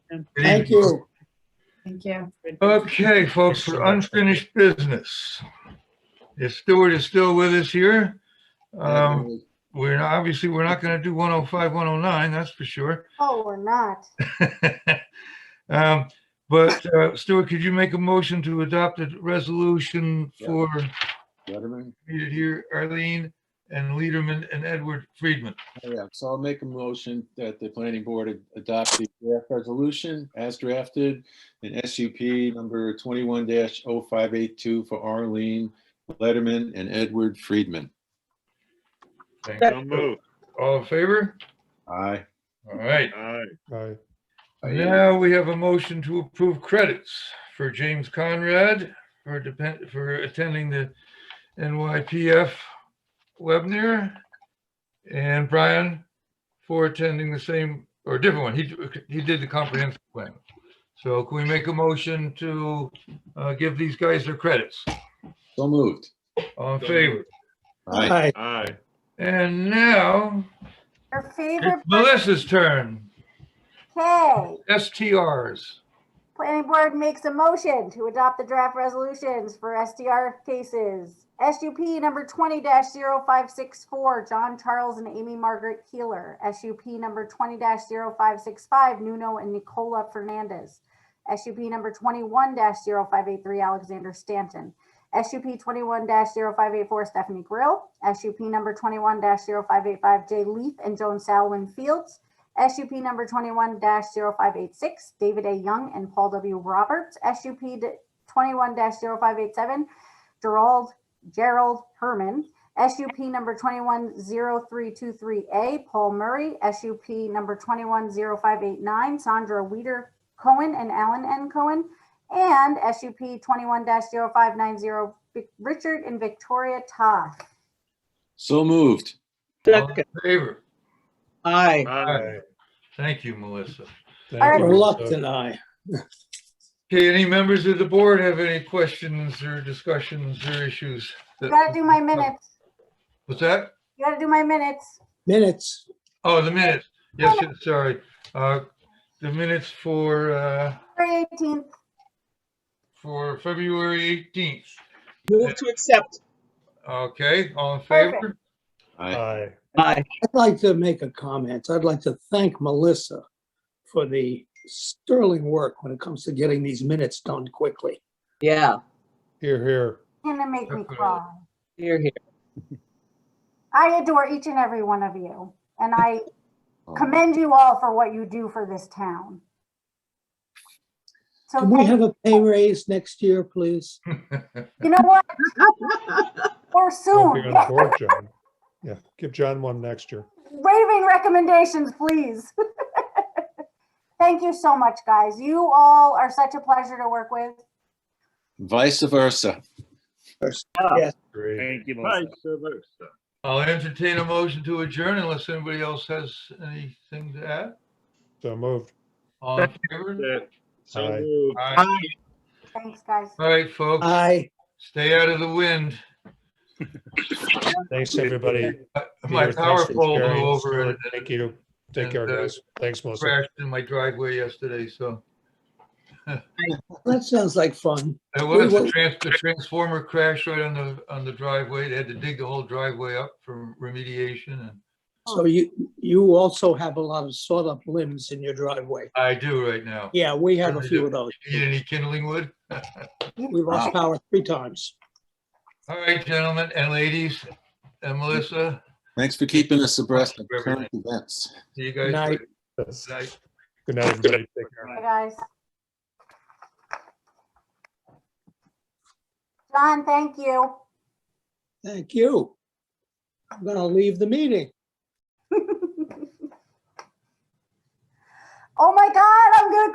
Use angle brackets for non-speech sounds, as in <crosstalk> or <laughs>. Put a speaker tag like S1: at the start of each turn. S1: Good
S2: Thank
S1: evening.
S2: you.
S3: Thank you.
S1: Okay, folks, for unfinished business. If Stuart is still with us here, um, we're, not- obviously, we're not gonna do 105, 109, that's for sure.
S4: <laughs> Oh, we're not.
S1: Um, But uh, Stuart, could you make a motion to adopt a resolution
S5: Yeah.
S1: for
S5: Letterman?
S1: needed here, Arlene and Lederman and Edward Friedman?
S5: Oh, Yeah, so I'll make a motion that the planning board ad- adopt the draft resolution as drafted in SUP number twenty-one oh 582 for Arlene Letterman and Edward Friedman.
S6: So moved.
S1: All in favor?
S5: Aye.
S1: All right.
S6: Aye.
S7: Aye.
S1: Now we have a motion to approve credits for James Conrad for depend, for attending the NYPF webinar. And Brian for attending the same or different one. He, he did the comprehensive plan. So can we make a motion to uh, give these guys their credits?
S5: So moved.
S1: All in favor?
S5: Aye.
S6: Aye.
S1: And now
S4: Your favorite,
S1: it's Melissa's turn.
S4: hey,
S1: STRs.
S4: planning board makes a motion to adopt the draft resolutions for SDR cases. SUP number twenty 564 John Charles and Amy Margaret Keeler. SUP number twenty 565 Nuno and Nicola Fernandez. SUP number twenty-one 583 Alexander Stanton. SUP twenty-one 584 Stephanie Grill. SUP number twenty-one 585 Jay Leaf and Joan Salwin Fields. SUP number twenty-one 586 David A. Young and Paul W. Roberts. SUP twenty-one 587 Gerald, Gerald Herman. SUP number twenty-one zero three two three A, Paul Murray. SUP number twenty-one zero five eight nine, Sandra Weider Cohen and Alan N. Cohen. And SUP twenty-one 590 Richard and Victoria Toth.
S5: So moved.
S1: All in
S8: Second,
S1: favor?
S8: aye.
S6: Aye.
S1: Thank you, Melissa.
S7: Thank you.
S2: Reluctant aye.
S1: Okay, any members of the board have any questions or discussions or issues?
S4: You
S1: that-
S4: gotta do my minutes.
S1: What's that?
S4: You gotta do my minutes.
S2: Minutes.
S1: Oh, the minutes. Yes, yes, sorry. Uh, The minutes for, uh,
S4: February eighteenth.
S1: for February 18th.
S8: Move to accept,
S1: Okay, all in favor?
S5: Aye.
S7: Aye.
S8: aye.
S2: I'd like to make a comment. I'd like to thank Melissa for the sterling work when it comes to getting these minutes done quickly.
S8: Yeah,
S7: Here, here.
S4: Gonna make me
S1: Definitely.
S4: cry.
S8: you're here.
S4: I adore each and every one of you, and I commend you all for what you do for this town. So,
S2: Can we
S4: thank-
S2: have a pay raise next year, please?
S4: you know what? Or
S7: <laughs> Don't be
S4: soon, <laughs>
S7: on board, John. Yeah, give John one next year.
S4: waiving recommendations, please. <laughs> Thank you so much, guys. You all are such a pleasure to work with.
S5: Vice versa.
S7: Great.
S6: Thank you. Vice versa.
S1: <laughs> I'll entertain a motion to adjourn unless anybody else has anything to add.
S7: So moved.
S1: All in favor?
S6: That- So
S7: Aye.
S6: moved.
S1: All right.
S8: Aye.
S4: Thanks, guys.
S1: All right, folks,
S2: Aye.
S1: stay out of the wind.
S7: Thanks, everybody.
S1: Uh, My
S7: Peter, thanks
S1: power
S7: for
S1: pole
S7: sharing.
S1: blew over
S7: Stuart,
S1: and
S7: Thank you. Take care,
S1: and, uh,
S7: guys. Thanks, Melissa.
S1: crashed in my driveway yesterday, so.
S2: That sounds like fun.
S1: It
S2: We
S1: was, the
S2: will-
S1: trans, the transformer crashed right on the, on the driveway. They had to dig the whole driveway up for remediation and
S2: So you, you also have a lot of sawed-up limbs in your driveway.
S1: I do right now.
S2: Yeah, we have a
S1: Really
S2: few
S1: do.
S2: of those.
S1: Need any kindling wood?
S2: We lost power three times.
S1: All right, gentlemen and ladies, and Melissa,
S5: Thanks for keeping us abreast of
S1: Everything.
S5: current events.
S1: see you guys.
S2: Night.
S1: later.
S7: Yes.
S1: Night.
S7: Good night, everybody. Take care.
S4: Bye, guys. John, thank you.
S2: Thank you. I'm gonna leave the meeting.
S4: Oh my God, I'm gonna